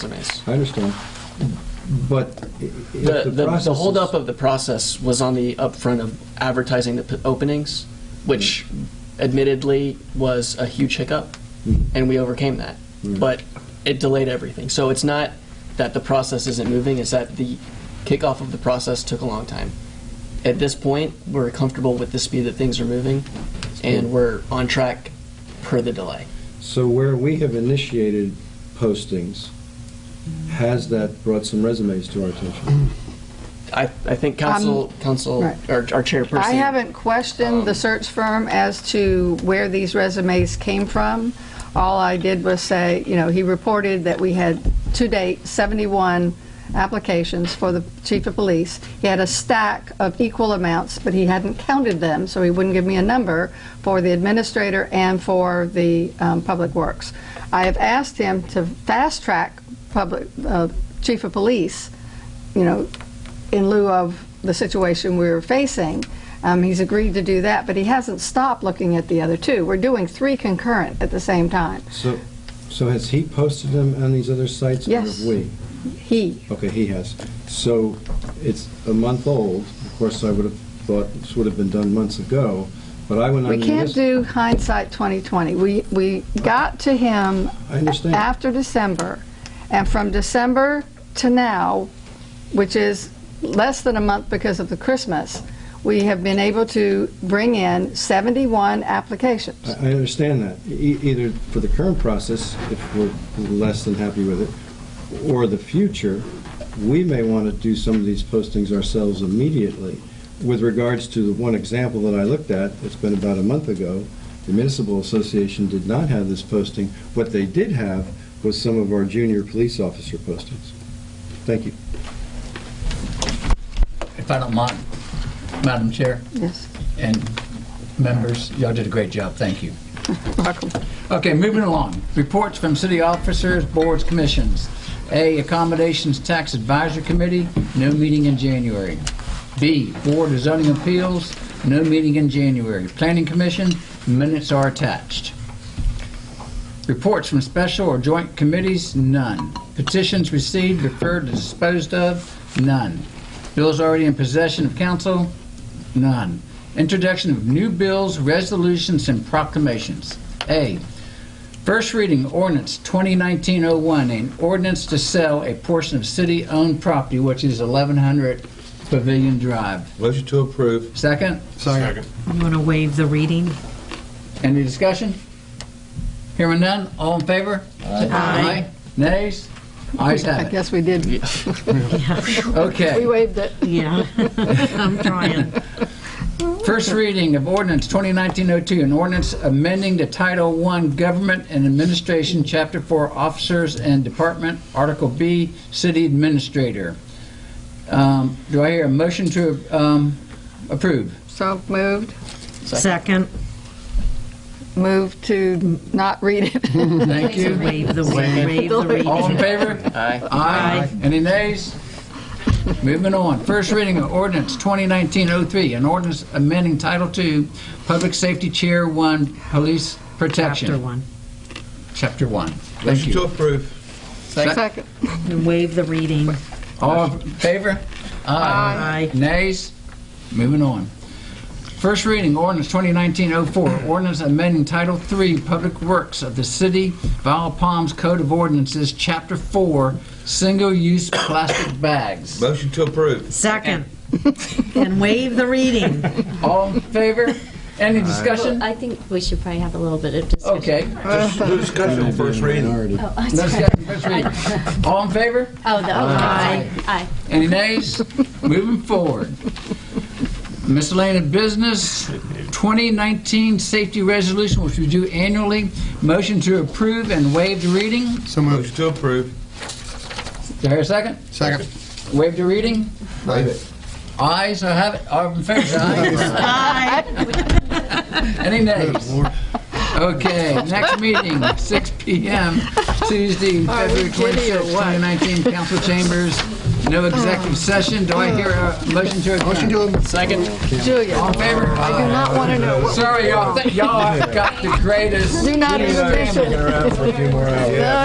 compliance. I understand. But i- if Uh, The, the the, process the is- holdup of the process was on the upfront of advertising the p- openings, which Mm. admittedly was a huge hiccup, and we overcame that. Mm. But it delayed everything. So it's not that the process isn't moving, it's that the kickoff of the process took a long time. At this point, we're comfortable with the speed that things are moving, and we're on track per the delay. So where we have initiated postings, has that brought some resumes to our attention? I, I think council, council, Um, right. or our chairperson. I haven't questioned the search firm as to where these resumes came from. All I did was say, you know, he reported that we had to date 71 applications for the chief of police. He had a stack of equal amounts, but he hadn't counted them, so he wouldn't give me a number for the administrator and for the um, public works. I have asked him to fast track public uh, chief of police, you know, in lieu of the situation we were facing. Um, he's agreed to do that, but he hasn't stopped looking at the other two. We're doing three concurrent at the same time. So, so has he posted them on these other sites? or have Yes. we? He, Okay, he has. So it's a month old. Of course, I would have thought this would have been done months ago, but I went on. we the can't list- do hindsight 2020. We we got to him I understand. after December, and from December to now, which is less than a month because of the Christmas, we have been able to bring in 71 applications. I I understand that. E- Either for the current process, if we're less than happy with it, or the future, we may want to do some of these postings ourselves immediately. With regards to the one example that I looked at, it's been about a month ago, the municipal association did not have this posting. What they did have was some of our junior police officer postings. Thank you. If I don't mind, Madam Chair Yes, and members, y'all did a great job. Thank you. welcome. Okay, moving along. Reports from city officers, boards, commissions. A, Accommodations Tax Advisory Committee, no meeting in January. B, Board of Zoning Appeals, no meeting in January. Planning Commission, minutes are attached. Reports from special or joint committees, none. Petitions received, referred, and disposed of, none. Bills already in possession of council, none. Introduction of new bills, resolutions, and proclamations. A, first reading ordinance 2019-01, an ordinance to sell a portion of city-owned property, which is 1100 Pavilion Drive. Motion to approve. Second, Second. You want to waive the reading? any discussion? Hearing none, all in favor? Aye. Nays? Ayes I have it. guess we did, we Okay. waived it. Yeah, I'm trying. First reading of ordinance 2019-02, an ordinance amending the Title I Government and Administration, Chapter 4, Officers and Department, Article B, City Administrator. Um, Do I hear a motion to um, approve? So moved, Second, moved to not read it. Thank please you. waive the, waive the All in reading. favor? Aye. Aye. Any nays? Moving on. First reading of ordinance 2019-03, an ordinance amending Title II, Public Safety Chair 1, Police Chapter Protection, one, Chapter 1. Thank Motion to you. approve. Second. and waive the reading. All in favor? Aye. Aye. Nays? Moving on. First reading, ordinance 2019-04, ordinance amending Title III, Public Works of the City Val Palms Code of Ordinances, Chapter 4, Single-Use Plastic Bags. Motion to approve. Second, and waive the reading. All in favor? Any discussion? Well, I think we should probably have a little bit of discussion. Okay. Just do discussion on first reading. Minority. Oh, I'm No sorry. discussion, first reading. All in favor? Oh, the, oh, aye, aye. Any nays? Moving forward. Miscellaneous business, 2019 safety resolution, which we do annually. Motion to approve and waive the reading. Is So moved. Motion to approve. there a second? Second. Waive the reading? Waive it. Ayes, I have it. All in favor, say aye. Any nays? Okay, next meeting, 6 PM, Tuesday, February 26, 2019, council chambers. No Oh. executive session. Do I hear a motion to adjourn? Second. All Julia, in favor? I do not want to know what Sorry, y'all, y'all have got the greatest. Do not family. even mention it. Around for a few more hours.